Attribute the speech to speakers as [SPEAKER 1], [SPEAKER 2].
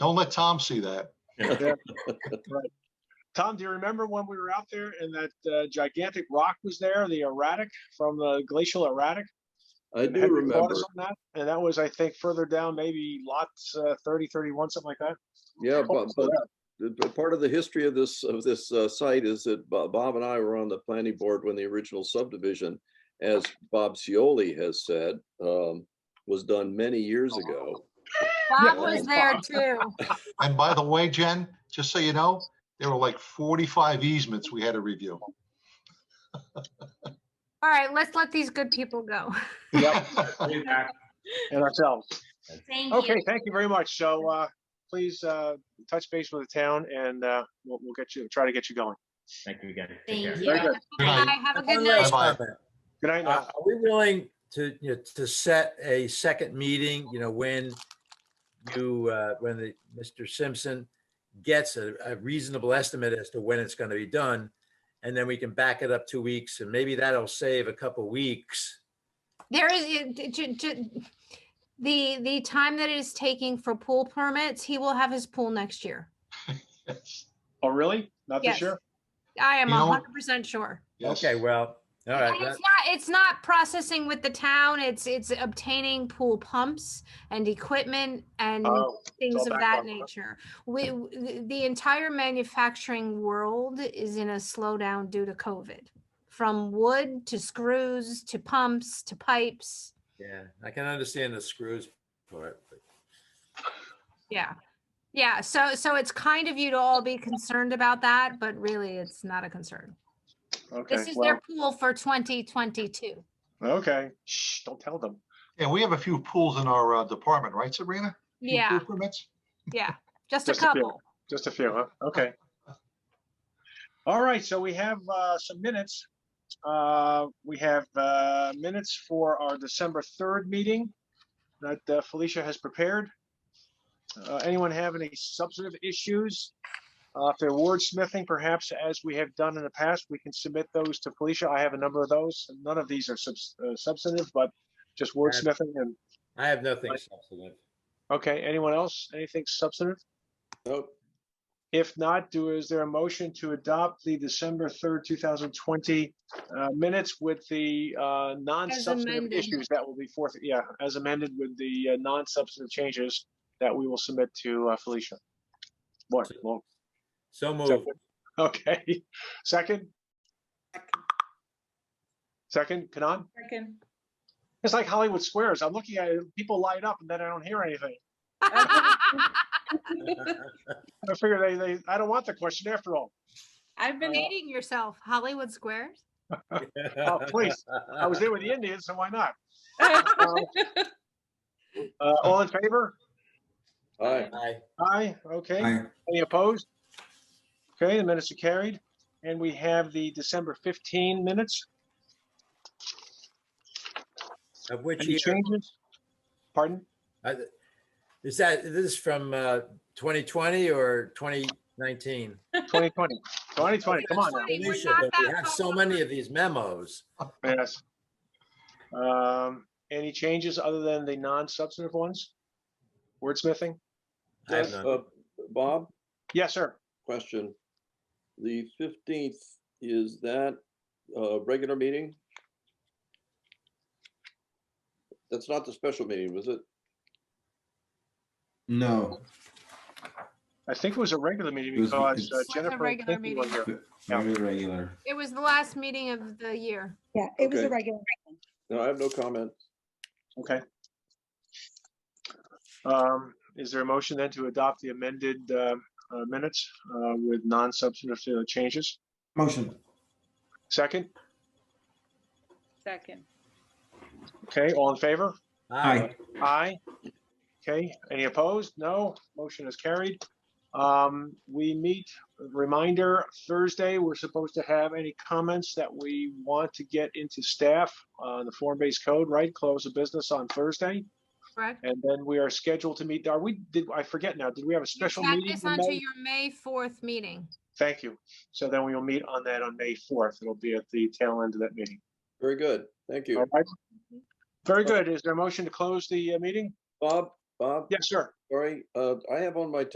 [SPEAKER 1] Don't let Tom see that.
[SPEAKER 2] Tom, do you remember when we were out there and that uh, gigantic rock was there, the erratic from the glacial erratic?
[SPEAKER 3] I
[SPEAKER 2] Had
[SPEAKER 3] do
[SPEAKER 2] we
[SPEAKER 3] remember.
[SPEAKER 2] thought of that? And that was, I think, further down, maybe lots uh, 30, 31, something like that.
[SPEAKER 3] Yeah, but,
[SPEAKER 2] Close to
[SPEAKER 3] but
[SPEAKER 2] that.
[SPEAKER 3] the- the part of the history of this, of this uh, site is that Bo- Bob and I were on the planning board when the original subdivision, as Bob Cioli has said, um, was done many years ago.
[SPEAKER 4] Bob was there too.
[SPEAKER 1] And by the way, Jen, just so you know, there were like 45 easements we had to review.
[SPEAKER 4] All right, let's let these good people go.
[SPEAKER 2] And ourselves.
[SPEAKER 4] Thank
[SPEAKER 2] Okay, thank you very much. So uh, please uh, touch base with the town and uh, we'll, we'll get you, try to get you going.
[SPEAKER 5] Thank you again. Take care.
[SPEAKER 6] Thank you.
[SPEAKER 1] Very good.
[SPEAKER 4] Bye, have a good
[SPEAKER 6] One
[SPEAKER 4] night.
[SPEAKER 6] last
[SPEAKER 1] Bye-bye.
[SPEAKER 6] comment.
[SPEAKER 2] Good night.
[SPEAKER 6] Uh,
[SPEAKER 2] now.
[SPEAKER 6] Are we willing to, you know, to set a second meeting, you know, when you, uh, when the, Mr. Simpson gets a a reasonable estimate as to when it's going to be done? And then we can back it up two weeks and maybe that'll save a couple weeks.
[SPEAKER 4] There is, it- it- ju- ju- the, the time that it is taking for pool permits, he will have his pool next year.
[SPEAKER 2] Oh, really? Not this
[SPEAKER 4] Yes.
[SPEAKER 2] year?
[SPEAKER 4] I am
[SPEAKER 1] You know what?
[SPEAKER 4] hundred percent sure.
[SPEAKER 1] Yes.
[SPEAKER 6] Okay, well, all
[SPEAKER 4] And
[SPEAKER 6] right.
[SPEAKER 4] It's
[SPEAKER 6] that-
[SPEAKER 4] not, it's not processing with the town, it's, it's obtaining pool pumps and equipment and
[SPEAKER 2] Oh, all
[SPEAKER 4] things of
[SPEAKER 2] back
[SPEAKER 4] that
[SPEAKER 2] on the-
[SPEAKER 4] nature. We, w- the- the entire manufacturing world is in a slowdown due to COVID. From wood to screws to pumps to pipes.
[SPEAKER 6] Yeah, I can understand the screws for it. but-
[SPEAKER 4] Yeah. Yeah. So, so it's kind of you to all be concerned about that, but really it's not a concern.
[SPEAKER 2] okay.
[SPEAKER 4] This is
[SPEAKER 2] Well,
[SPEAKER 4] their pool for 2022.
[SPEAKER 2] okay. Shh, don't tell them.
[SPEAKER 1] Yeah, we have a few pools in our uh, department, right, Sabrina? Few pool
[SPEAKER 4] Yeah.
[SPEAKER 1] Permits?
[SPEAKER 4] Yeah. Just a
[SPEAKER 2] Just a few.
[SPEAKER 4] couple.
[SPEAKER 2] Just a few, huh? Okay. All right, so we have uh, some minutes. Uh, We have uh, minutes for our December 3rd meeting that uh, Felicia has prepared. Uh, Anyone have any substantive issues? Uh, If they're wordsmithing, perhaps as we have done in the past, we can submit those to Felicia. I have a number of those. None of these are subs- uh, substantive, but just wordsmithing and,
[SPEAKER 6] I have nothing substantive.
[SPEAKER 2] okay, anyone else? Anything substantive?
[SPEAKER 3] Nope.
[SPEAKER 2] If not, do, is there a motion to adopt the December 3rd, 2020 uh, minutes with the uh, non-substantive
[SPEAKER 4] amended.
[SPEAKER 2] issues that will be forth, yeah, as amended with the uh, non-substantive changes that we will submit to uh, Felicia? What, well,
[SPEAKER 6] So moved.
[SPEAKER 2] okay, second? Second, Kanan?
[SPEAKER 7] Second.
[SPEAKER 2] It's like Hollywood Squares. I'm looking at, it, people light up and then I don't hear anything. I figure they, they, I don't want the question after all.
[SPEAKER 7] I've been,
[SPEAKER 4] Dating yourself, Hollywood Squares.
[SPEAKER 2] Oh, please. I was there with the Indians, so why not? Uh, All in favor?
[SPEAKER 3] All right.
[SPEAKER 6] Aye.
[SPEAKER 2] Aye, okay. Any opposed? Okay, the minutes are carried. And we have the December 15 minutes.
[SPEAKER 6] Of which
[SPEAKER 2] Any
[SPEAKER 6] year?
[SPEAKER 2] changes? Pardon?
[SPEAKER 6] Uh, th- Is that, this is from uh, 2020 or 2019?
[SPEAKER 2] 2020, 2020, come on now.
[SPEAKER 4] Sorry, we're
[SPEAKER 6] Felicia,
[SPEAKER 4] not
[SPEAKER 6] but We
[SPEAKER 4] that
[SPEAKER 6] have
[SPEAKER 4] far
[SPEAKER 6] so many of these memos.
[SPEAKER 2] Yes. Um, Any changes other than the non-substantive ones? Wordsmithing?
[SPEAKER 6] I have none.
[SPEAKER 3] Uh, Bob,
[SPEAKER 2] Yes, sir.
[SPEAKER 3] question. The fifteenth, is that a regular meeting? That's not the special meeting, was it?
[SPEAKER 8] No,
[SPEAKER 2] I think it was a regular meeting
[SPEAKER 8] It was-
[SPEAKER 2] because uh,
[SPEAKER 8] it's-
[SPEAKER 4] a
[SPEAKER 2] Jennifer.
[SPEAKER 4] regular
[SPEAKER 2] Pinkney was
[SPEAKER 4] meeting.
[SPEAKER 2] there. Yeah.
[SPEAKER 8] very regular.
[SPEAKER 4] It was the last meeting of the year.
[SPEAKER 9] Yeah, it was a
[SPEAKER 3] Okay.
[SPEAKER 9] regular.
[SPEAKER 3] No, I have no comment.
[SPEAKER 2] Okay. Um, Is there a motion then to adopt the amended uh, uh, minutes uh, with non-substantive uh, changes?
[SPEAKER 8] Motion.
[SPEAKER 2] Second?
[SPEAKER 7] second.
[SPEAKER 2] Okay, all in favor?
[SPEAKER 6] Aye.
[SPEAKER 2] Aye. Okay, any opposed? No, motion is carried. Um, we meet, reminder, Thursday, we're supposed to have any comments that we want to get into staff on the form-based code, right? Close of business on Thursday,
[SPEAKER 4] Correct?
[SPEAKER 2] and then we are scheduled to meet, are we, did, I forget now, did we have a
[SPEAKER 4] You
[SPEAKER 2] special
[SPEAKER 4] tack
[SPEAKER 2] meeting?
[SPEAKER 4] this
[SPEAKER 2] in
[SPEAKER 4] onto
[SPEAKER 2] May?
[SPEAKER 4] your May 4th meeting.
[SPEAKER 2] Thank you. So then we will meet on that on May fourth. It'll be at the tail end of that meeting.
[SPEAKER 3] Very good. Thank you.
[SPEAKER 2] All right? Very good. Is there a motion to close the uh, meeting?
[SPEAKER 3] Bob, Bob,
[SPEAKER 2] Yes, sir.
[SPEAKER 3] sorry, uh, I have on my